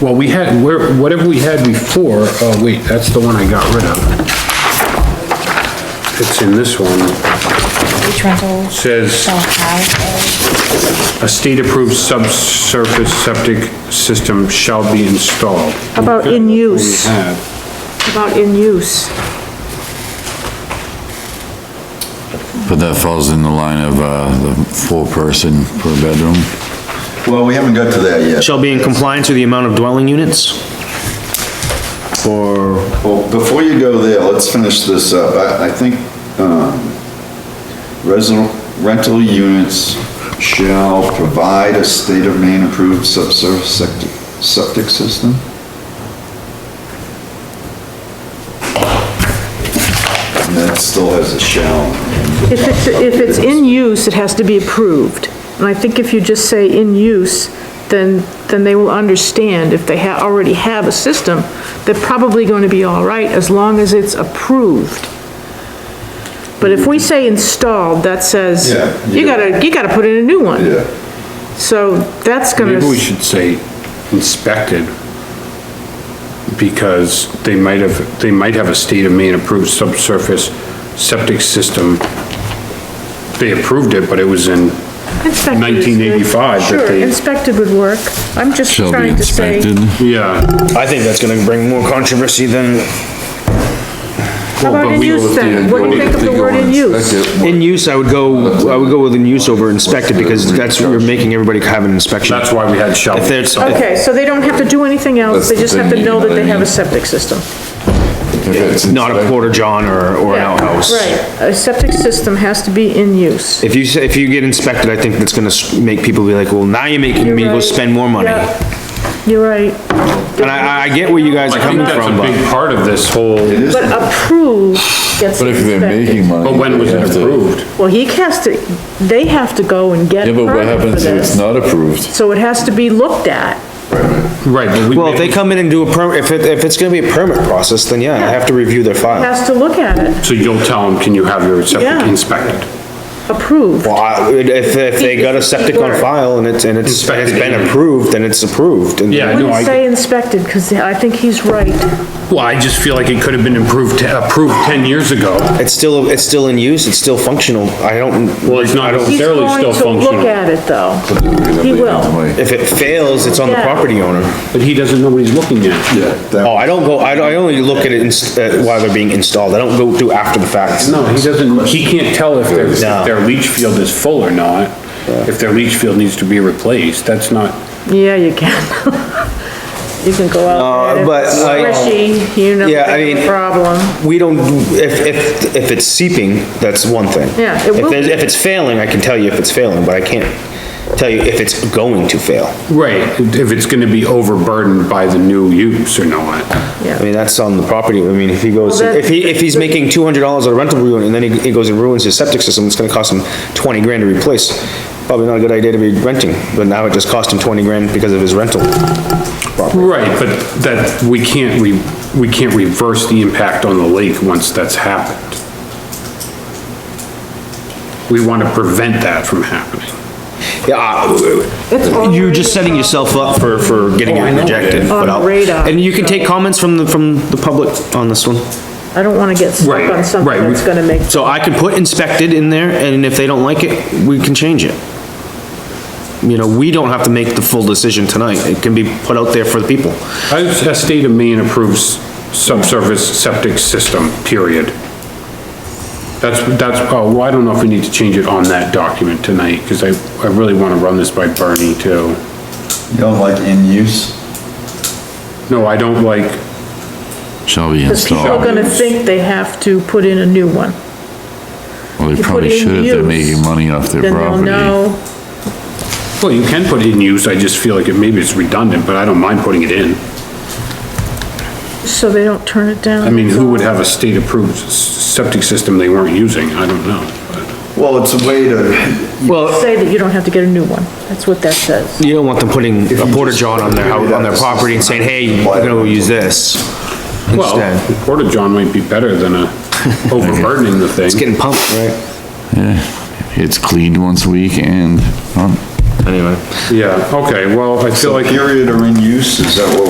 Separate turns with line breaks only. Well, we had, where- whatever we had before, oh wait, that's the one I got rid of. It's in this one.
Each rental
Says
shall have
a state-approved subsurface septic system shall be installed.
How about in use?
We have-
About in use,
But that falls in the line of, uh, the four-person per bedroom.
Well, we haven't got to that yet.
Shall be in compliance with the amount of dwelling units? Or,
Well, before you go there, let's finish this up. I, I think, um, resi- rental units shall provide a state of Maine approved subsurface septic, septic system? And that still has a shall.
if it's, if it's in use, it has to be approved. And I think if you just say in use, then, then they will understand if they ha, already have a system, they're probably going to be all right as long as it's approved. But if we say installed, that says,
Yeah,
you
yeah.
gotta, you gotta put in a new one.
Yeah.
So that's gonna,
Maybe we should say inspected, because they might have, they might have a state of Maine approved subsurface septic system. They approved it, but it was in,
inspected is good.
1985 that
Sure,
they-
inspected would work. I'm just
Shall be
trying to say.
inspected.
yeah.
I think that's gonna bring more controversy than,
How about in use then? What do you think of the word in use?
in use, I would go, I would go with in use over inspected, because that's, you're making everybody have an inspection.
That's why we had shall.
If there's,
Okay, so they don't have to do anything else, they just have to know that they have a septic system.
it's not a porta john or, or an outhouse.
Right, a septic system has to be in use.
If you, say- if you get inspected, I think that's gonna s- make people be like, well, now you're making me
You're
go
right.
spend more money.
Yeah.
And
You're right,
I, I- I get where you guys
I
are
think
coming
that's
from,
a big
but
part of this whole,
but approved gets
But if they're making
inspected.
money.
but when was
they
it
have to-
approved?
Well, he has to, they have to go and get
Yeah,
a
but what
permit for
happens if it's
this.
not approved?
So it has to be looked at.
Right, but we.
well, if
made-
they come in and do a per, if it, if it's gonna be a permit process, then yeah, I have to review their file.
Has to look at it,
So you'll tell them, can you have your
Yeah.
septic inspected?
approved.
Well, I- if, if they got a septic on file and it's, and it's, and it's been approved, then it's approved. and-
Yeah, I know,
Wouldn't
I,
say inspected, because I think he's right.
well, I just feel like it could have been improved, te- approved 10 years ago.
It's still, it's still in use, it's still functional, I don't,
Well, it's not
He's
necessarily
going
still
to look
functional,
at it, though. He will.
if it fails, it's on the
Yeah.
property owner.
but he doesn't know what he's looking at.
Yeah.
Oh,
that-
I don't go, I, don't- I only look at it inst- uh, while they're being installed, I don't go through after the fact.
No, he doesn't, he can't tell if their,
No.
if their leach field is full or not, if their leach field needs to be replaced, that's not,
Yeah, you can. You can go out there.
Uh, but, like-
Squishy, you know,
Yeah, I
they have a
mean-
problem.
We don't, if, if, if it's seeping, that's one thing.
Yeah, it
If
will
there's-
be.
If it's failing, I can tell you if it's failing, but I can't tell you if it's going to fail.
right, if it's gonna be overburdened by the new use or not.
I mean, that's on the property, I mean, if he goes,
Well, that-
if he, if he's making two hundred dollars on a rental unit, and then he, he goes and ruins his septic system, it's gonna cost him twenty grand to replace. Probably not a good idea to be renting, but now it just cost him twenty grand because of his rental.
Right, but that, we can't, we, we can't reverse the impact on the lake once that's happened. We wanna prevent that from happening.
Yeah, I-
It's already
you're just setting
a
yourself up for, for getting
Oh, I
it
know.
rejected.
On
but I'll-
radar.
And you can take comments from the, from the public on this one.
problem. I don't wanna get stuck
Right,
on
right,
something
we-
that's gonna make,
So I can put inspected in there, and if they don't like it, we can change it. You know, we don't have to make the full decision tonight, it can be put out there for the people.
As a state of Maine approves subsurface septic system, period. That's, that's, oh, well, I don't know if we need to change it on that document tonight, because I, I really want to run this by Bernie too.
You don't like in use?
No, I don't like,
Shall be
because people
installed.
are gonna think they have to put in a new one.
Well, they
put
probably
in
should if they're
use,
making money off their
Then they'll
property.
know,
well, you can put it in use, I just feel like it, maybe it's redundant, but I don't mind putting it in.
so they don't turn it down.
I mean, who would have a state approved s- septic system they weren't using? I don't know.
Well, it's a way to,
Well,
Say that you don't have to get a new one, that's what that says.
you don't want them putting a porta john on their, hou- on their property and saying, hey, you're gonna go use this instead.
Well, Porta John might be better than a overburdening the thing.
It's getting pumped, right?
Yeah, it's cleaned once a week and, um,
Anyway.
Yeah, okay, well, I feel like
period or in use, is that what